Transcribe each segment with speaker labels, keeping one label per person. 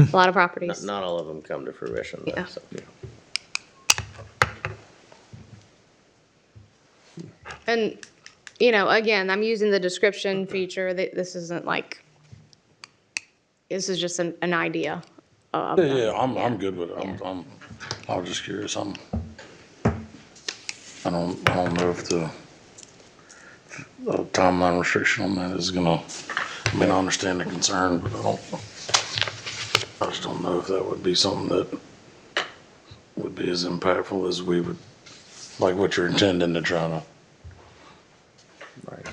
Speaker 1: a lot of
Speaker 2: Not,
Speaker 1: properties.
Speaker 2: not all of them come to fruition, though,
Speaker 1: Yeah.
Speaker 2: so.
Speaker 1: And, you know, again, I'm using the description feature, that this isn't like, this is just an, an idea.
Speaker 3: Yeah, yeah, I'm, I'm good with it.
Speaker 1: Yeah.
Speaker 3: I'm, I'm, I was just curious. I'm, I don't, I don't know if the the timeline restriction on that is gonna, I mean, I understand the concern, but I don't, I just don't know if that would be something that would be as impactful as we would, like what you're intending to try to.
Speaker 4: Right.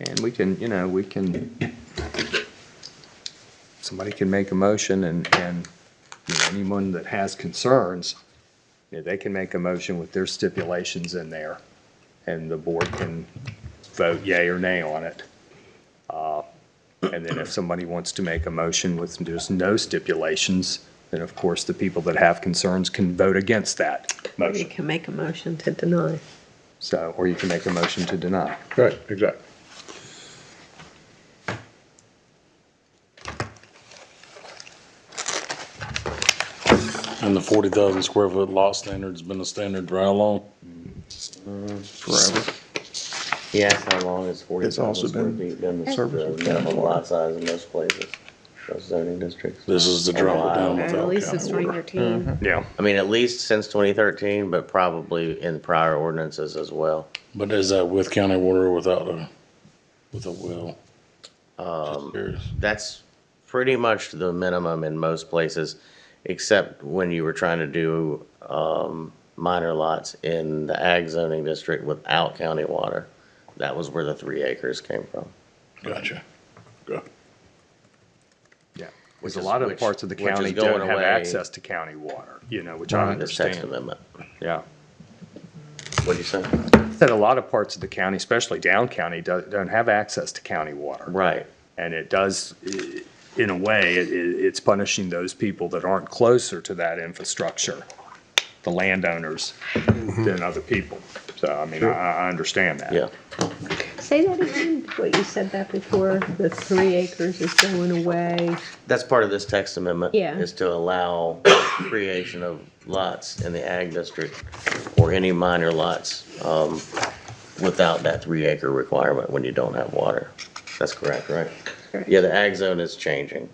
Speaker 4: And we can, you know, we can, somebody can make a motion and, and you know, anyone that has concerns, you know, they can make a motion with their stipulations in there. And the board can vote yay or nay on it. Uh, And then if somebody wants to make a motion with just no stipulations, then of course the people that have concerns can vote against that
Speaker 5: Or you
Speaker 4: motion.
Speaker 5: can make a motion to deny.
Speaker 4: So, or you can make a motion to deny.
Speaker 6: Right, exactly.
Speaker 3: And the forty thousand square foot lot standard's been a standard for how long?
Speaker 6: Forever.
Speaker 2: He asked how long has forty
Speaker 6: It's also
Speaker 2: thousand square
Speaker 6: been
Speaker 2: feet been the
Speaker 6: service
Speaker 2: the
Speaker 6: with
Speaker 2: minimum
Speaker 6: capital.
Speaker 2: lot size in most places, those zoning districts?
Speaker 3: This is the drop down
Speaker 1: Or
Speaker 3: without.
Speaker 1: At least
Speaker 3: counting
Speaker 1: since
Speaker 3: water.
Speaker 1: 2013.
Speaker 4: Yeah.
Speaker 2: I mean, at least since twenty thirteen, but probably in prior ordinances as well.
Speaker 3: But is that with county water or without a, with a well? Um.
Speaker 2: That's pretty much the minimum in most places, except when you were trying to do, um, minor lots in the ag zoning district without county water. That was where the three acres came from.
Speaker 3: Gotcha. Yeah.
Speaker 4: Yeah, because a
Speaker 2: is-
Speaker 4: lot of
Speaker 2: which-
Speaker 4: parts of the
Speaker 2: which is
Speaker 4: county
Speaker 2: going
Speaker 4: don't have
Speaker 2: away.
Speaker 4: access to county water, you know, which I
Speaker 2: This text
Speaker 4: understand.
Speaker 2: amendment.
Speaker 4: Yeah.
Speaker 2: What'd you say?
Speaker 4: That a lot of parts of the county, especially down county, do- don't have access to county water.
Speaker 2: Right.
Speaker 4: And it does, i- in a way, it- it- it's punishing those people that aren't closer to that infrastructure, the landowners, than other people. So, I mean, I- I, I understand that.
Speaker 2: Yeah.
Speaker 5: Say that again, what you said that before, the three acres is going away.
Speaker 2: That's part of this text amendment.
Speaker 5: Yeah.
Speaker 2: Is to allow creation of lots in the ag district or any minor lots, um, without that three acre requirement when you don't have water. That's correct, right?
Speaker 5: Correct.
Speaker 2: Yeah, the ag zone is changing.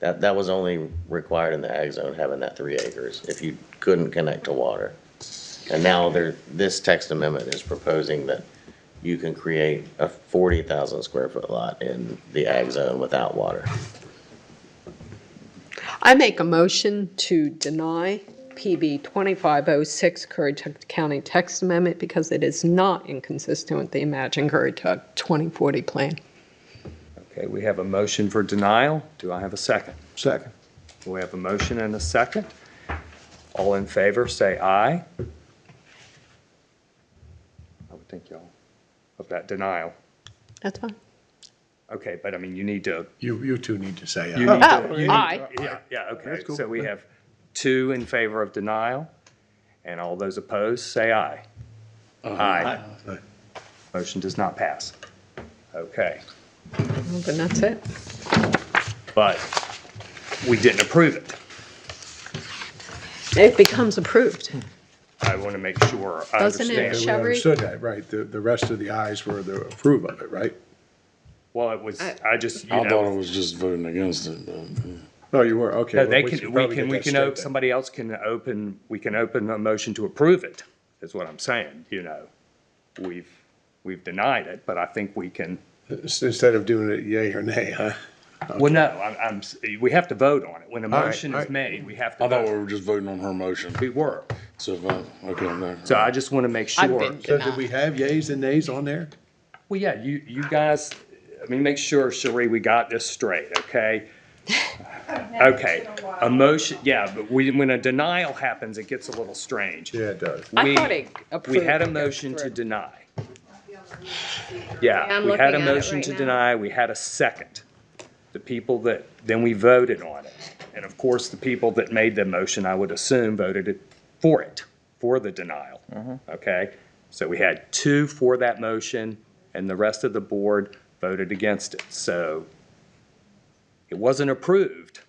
Speaker 2: That, that was only required in the ag zone, having that three acres, if you couldn't connect to water. And now there, this text amendment is proposing that you can create a forty thousand square foot lot in the ag zone without water.
Speaker 5: I make a motion to deny PB 2506 Currituck County text amendment because it is not inconsistent with the Imagine Currituck 2040 plan.
Speaker 4: Okay, we have a motion for denial. Do I have a second?
Speaker 6: Second.
Speaker 4: We have a motion and a second. All in favor, say aye. I would think y'all of that denial.
Speaker 5: That's fine.
Speaker 4: Okay, but I mean, you need to.
Speaker 6: You, you two need to say uh,
Speaker 4: you
Speaker 6: aye.
Speaker 4: need to-
Speaker 5: Oh,
Speaker 4: you need-
Speaker 5: aye.
Speaker 4: Yeah, yeah, okay.
Speaker 6: That's cool.
Speaker 4: So we have two in favor of denial, and all those opposed, say aye. Aye.
Speaker 5: Uh,
Speaker 6: Aye.
Speaker 4: Motion does not pass. Okay,
Speaker 5: Well, Then that's it.
Speaker 4: but we didn't approve it.
Speaker 5: It becomes approved.
Speaker 4: I want to make sure I
Speaker 5: Doesn't it
Speaker 4: understand.
Speaker 5: show-
Speaker 6: We
Speaker 5: Shall we-
Speaker 6: understood that, right, the, the rest of the ayes were the approve of it, right?
Speaker 4: Well, it was, I just, you know.
Speaker 3: I thought it was just voting against it, but. yeah.
Speaker 6: Oh, you were, okay.
Speaker 4: No,
Speaker 6: well,
Speaker 4: they
Speaker 6: we
Speaker 4: can,
Speaker 6: should
Speaker 4: we
Speaker 6: probably
Speaker 4: can,
Speaker 6: get
Speaker 4: we
Speaker 6: that
Speaker 4: can,
Speaker 6: straight
Speaker 4: op-
Speaker 6: then.
Speaker 4: somebody else can open, we can open a motion to approve it, is what I'm saying, you know. We've, we've denied it, but I think we can,
Speaker 6: Instead of doing it yay or nay, huh?
Speaker 4: well, no, I'm, I'm, s- we have to vote on it. When a
Speaker 6: right,
Speaker 4: motion
Speaker 6: all
Speaker 4: is
Speaker 6: right.
Speaker 4: made, we have to
Speaker 3: I thought we
Speaker 4: vote.
Speaker 3: were just voting on her motion.
Speaker 4: We were.
Speaker 3: So if I, okay, no.
Speaker 4: So I just want to make
Speaker 5: I've
Speaker 4: sure.
Speaker 5: been-
Speaker 6: So did we have yays and nays on there?
Speaker 4: Well, yeah, you, you guys, I mean, make sure, Cherie, we got this straight, okay? Okay, a motion, yeah, but we, when a denial happens, it gets a little strange.
Speaker 6: Yeah, it does.
Speaker 5: I
Speaker 4: We-
Speaker 5: thought it
Speaker 4: We
Speaker 5: approved.
Speaker 4: had a
Speaker 5: and goes
Speaker 4: motion to
Speaker 5: through.
Speaker 4: deny.
Speaker 1: Yeah,
Speaker 4: Yeah,
Speaker 1: I'm
Speaker 4: we had a
Speaker 1: looking at it
Speaker 4: motion
Speaker 1: right
Speaker 4: to
Speaker 1: now.
Speaker 4: deny, we had a second. The people that, then we voted on it. And of course, the people that made the motion, I would assume, voted it for it, for the denial. Okay? So we had two for that motion, and the rest of the board voted against it. So it wasn't approved.